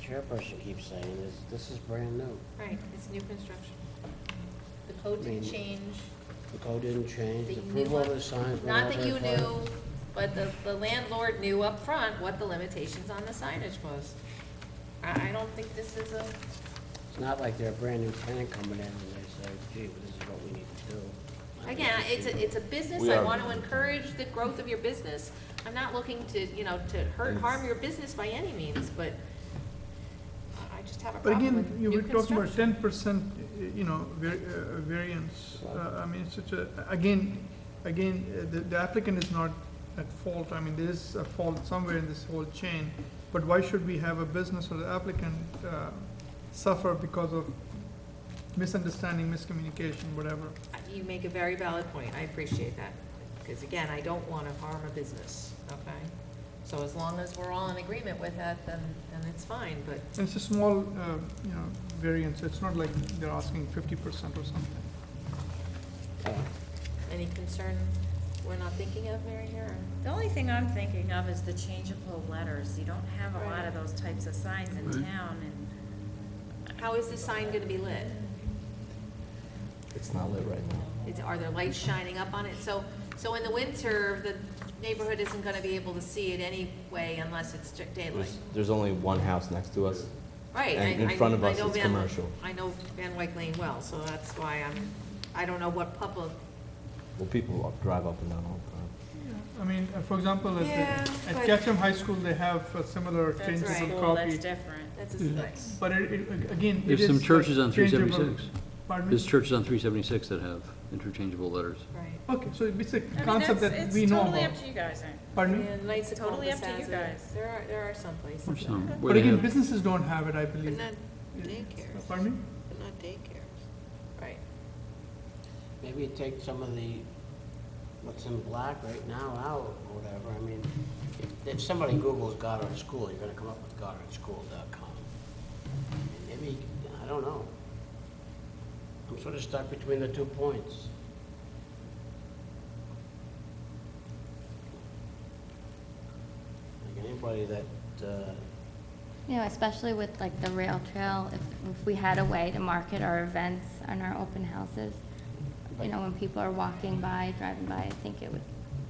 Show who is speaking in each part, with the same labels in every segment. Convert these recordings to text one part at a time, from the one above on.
Speaker 1: chairperson keeps saying is, this is brand new.
Speaker 2: Right, it's new construction.
Speaker 3: The code didn't
Speaker 1: Mm.
Speaker 3: change.
Speaker 1: The code didn't change,
Speaker 3: that
Speaker 1: the
Speaker 3: you knew
Speaker 1: approval of
Speaker 3: up-
Speaker 1: the signs. were
Speaker 3: Not that you
Speaker 1: very far.
Speaker 3: knew, but the, the landlord knew up front what the limitations on the signage was. I, I don't think this is a,
Speaker 1: It's not like they're a brand new tenant coming in and they say, gee, well, this is what we need to do. I think
Speaker 3: again,
Speaker 1: this
Speaker 3: it's
Speaker 1: should
Speaker 3: a,
Speaker 1: be-
Speaker 3: it's a business,
Speaker 4: We
Speaker 3: I
Speaker 4: are-
Speaker 3: want to encourage the growth of your business. I'm not looking to, you know, to hurt, harm your business by any means, but I- I just have a
Speaker 5: But
Speaker 3: problem
Speaker 5: again,
Speaker 3: with
Speaker 5: you
Speaker 3: new
Speaker 5: were talking about
Speaker 3: construction.
Speaker 5: ten percent, eh, you know, var- uh, variance. Uh, I mean, it's such a, again, again, uh, the- the applicant is not at fault. I mean, there is a fault somewhere in this whole chain. But why should we have a business or the applicant uh, suffer because of misunderstanding, miscommunication, whatever?
Speaker 3: You make a very valid point, I appreciate that, because again, I don't want to harm a business, okay? So as long as we're all in agreement with that, then, then it's fine, but
Speaker 5: And it's a small, uh, you know, variance. It's not like they're asking fifty percent or something.
Speaker 1: Yeah.
Speaker 3: Any concern we're not thinking of, Mary Jo, or
Speaker 2: The only thing I'm thinking of is the changeable letters. You don't have a lot of those types of signs in town, and
Speaker 3: How is the sign gonna be lit?
Speaker 4: It's not lit right now.
Speaker 3: Is, are there lights shining up on it? So, so in the winter, the neighborhood isn't gonna be able to see it anyway unless it's strict daylight.
Speaker 4: There's, there's only one house next to us.
Speaker 3: Right. I-
Speaker 4: And
Speaker 3: I-
Speaker 4: in front of
Speaker 3: I
Speaker 4: us,
Speaker 3: know
Speaker 4: it's
Speaker 3: Van-
Speaker 4: commercial.
Speaker 3: I know Van Wyck Lane well, so that's why I'm, I don't know what public,
Speaker 4: Well, people walk- drive up and down all the time.
Speaker 5: I mean, uh, for example, at, the-
Speaker 3: Yeah,
Speaker 5: at
Speaker 3: but-
Speaker 5: Ketchum High School, they have a similar
Speaker 2: that's
Speaker 3: right.
Speaker 5: changeable
Speaker 2: school, that's
Speaker 5: copy.
Speaker 2: different.
Speaker 3: that's a
Speaker 6: Mm.
Speaker 3: nice.
Speaker 5: But it, it- again, it
Speaker 6: There's
Speaker 5: is.
Speaker 6: some churches on three
Speaker 5: changeable.
Speaker 6: seventy-six.
Speaker 5: Pardon
Speaker 6: There's
Speaker 5: me?
Speaker 6: churches on three seventy-six that have interchangeable letters.
Speaker 3: Right.
Speaker 5: Okay, so it's a
Speaker 2: I mean,
Speaker 5: concept
Speaker 2: that's-
Speaker 5: that we know
Speaker 2: It's totally
Speaker 5: about.
Speaker 2: up to you guys, right?
Speaker 5: Pardon me?
Speaker 3: And Knights of
Speaker 2: Totally
Speaker 3: Columbus
Speaker 2: up to you
Speaker 3: has it.
Speaker 2: guys.
Speaker 3: There are, there are some places.
Speaker 6: Or some,
Speaker 3: that-
Speaker 6: where
Speaker 5: But
Speaker 6: they
Speaker 5: again,
Speaker 6: have-
Speaker 5: businesses don't have it, I
Speaker 2: But
Speaker 5: believe.
Speaker 2: not
Speaker 5: Yeah.
Speaker 2: daycares,
Speaker 5: Pardon me?
Speaker 2: but not daycares.
Speaker 3: Right.
Speaker 1: Maybe take some of the, what's in black right now out, or whatever, I mean, if- if somebody Googles Goddard School, you're gonna come up with goddardsschool.com. Maybe, I don't know. I'm sort of stuck between the two points. Like anybody that, uh,
Speaker 7: You know, especially with like the rail trail, if, if we had a way to market our events and our open houses, you know, when people are walking by, driving by, I think it would,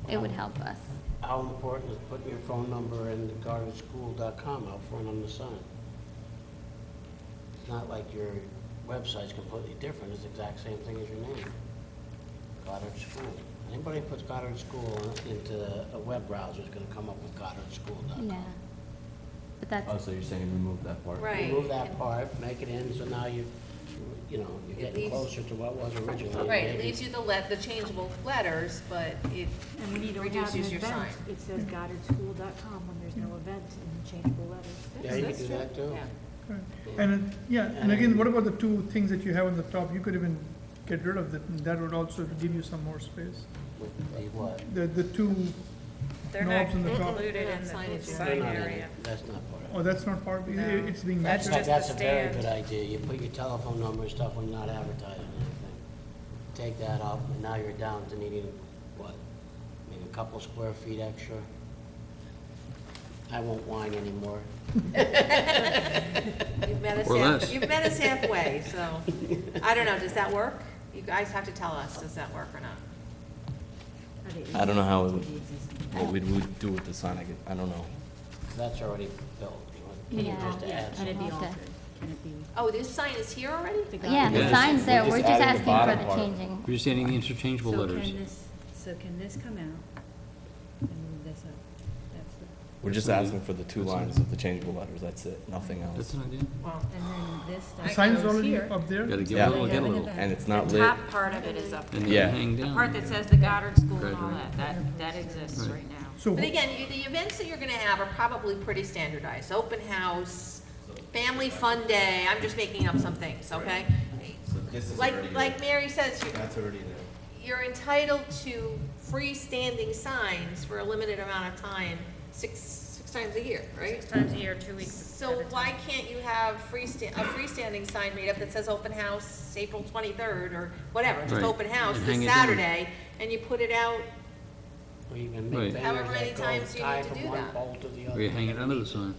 Speaker 7: it would help us.
Speaker 1: how important is putting your phone number in the gardensschool.com out front on the sign? It's not like your website's completely different, it's the exact same thing as your name. Goddard School. Anybody who puts Goddard School into a web browser is gonna come up with
Speaker 7: Yeah.
Speaker 1: goddardsschool.com.
Speaker 7: But that's,
Speaker 4: Also, Oh, you're saying remove that part?
Speaker 3: Right.
Speaker 1: Remove that part, make it in, so now you, you know, you're
Speaker 3: It
Speaker 1: getting
Speaker 3: leaves-
Speaker 1: closer to what was originally.
Speaker 3: Right, it
Speaker 1: Maybe-
Speaker 3: leaves you the let, the changeable letters, but it
Speaker 8: And when you don't have an
Speaker 3: reduces your sign.
Speaker 8: event, it says goddardschool.com when there's no event in the changeable letters.
Speaker 1: Yeah, you could
Speaker 3: That's
Speaker 1: do
Speaker 3: true.
Speaker 1: that too.
Speaker 3: Yeah.
Speaker 5: Correct. And, it- yeah, and again, what about the two things that you have on the top? You could even get rid of that, and that would also give you some more space.
Speaker 1: With the what?
Speaker 5: The, the two,
Speaker 9: They're
Speaker 5: No,
Speaker 9: not
Speaker 5: it's in the top.
Speaker 9: included in
Speaker 3: Sign
Speaker 9: the
Speaker 3: it, yeah.
Speaker 1: They're
Speaker 9: sign
Speaker 1: not in it.
Speaker 9: area.
Speaker 1: That's not part of it.
Speaker 5: oh, that's not part, it-
Speaker 9: No.
Speaker 5: it's being
Speaker 9: That's
Speaker 5: measured.
Speaker 1: That-
Speaker 9: just the
Speaker 1: That's a very
Speaker 9: stand.
Speaker 1: good idea. You put your telephone number and stuff when you're not advertising anything. Take that up, and now you're down to needing, what, maybe a couple square feet extra? I won't whine anymore.
Speaker 3: You've met us
Speaker 6: Or
Speaker 3: half,
Speaker 6: less.
Speaker 3: you've met us halfway, so, I don't know, does that work? You guys have to tell us, does that work or not?
Speaker 4: I don't know how, it would-
Speaker 8: how.
Speaker 4: what we would do with the sign, I, gu- I don't know.
Speaker 1: That's already built. You want- you
Speaker 7: Yeah.
Speaker 1: just add
Speaker 8: Can it be
Speaker 7: Okay.
Speaker 8: altered? Can it be?
Speaker 3: Oh, this sign is here already?
Speaker 7: yeah, the
Speaker 6: Yeah.
Speaker 7: sign's there,
Speaker 4: Just
Speaker 7: we're just
Speaker 4: adding the
Speaker 7: asking
Speaker 4: bottom
Speaker 7: for the
Speaker 4: part.
Speaker 7: changing.
Speaker 6: We're just adding the interchangeable
Speaker 8: So
Speaker 6: letters.
Speaker 8: can this, so can this come out and move this up? That's the-
Speaker 4: We're just asking for the two lines of the changeable letters, that's it, nothing
Speaker 6: That's
Speaker 4: else.
Speaker 6: an idea.
Speaker 3: Well,
Speaker 8: And then this stuff.
Speaker 5: The Sign's
Speaker 8: goes
Speaker 5: already
Speaker 8: here.
Speaker 5: up there?
Speaker 6: Gotta give
Speaker 4: Yeah.
Speaker 6: a little, get a little.
Speaker 4: And it's not lit.
Speaker 9: Top part of it is up,
Speaker 6: And
Speaker 4: Yeah.
Speaker 6: then hang
Speaker 9: the
Speaker 6: down.
Speaker 9: part that says the Goddard School and all
Speaker 6: Graduate.
Speaker 9: that, that, that exists right now.
Speaker 5: So
Speaker 3: But again, you- the events that you're gonna have are probably pretty standardized, open house, family fun day, I'm just making up some things, okay? Like, like Mary says, you-
Speaker 4: That's already there.
Speaker 3: you're entitled to freestanding signs for a limited amount of time, six, six times a year, right?
Speaker 9: Six times a year, two weeks at
Speaker 3: So
Speaker 9: a
Speaker 3: why
Speaker 9: time.
Speaker 3: can't you have freesta- a freestanding sign made up that says open house April twenty-third or whatever, just
Speaker 6: Right.
Speaker 3: open house
Speaker 6: And
Speaker 3: this
Speaker 6: hang it down.
Speaker 3: Saturday, and you put it out,
Speaker 1: Or you can
Speaker 6: Right.
Speaker 1: make
Speaker 3: However
Speaker 1: banners
Speaker 3: many
Speaker 1: that go
Speaker 3: times you
Speaker 1: tie
Speaker 3: need to
Speaker 1: from
Speaker 3: do
Speaker 1: one
Speaker 3: that.
Speaker 1: pole to the other.
Speaker 6: Or you hang it under the sign.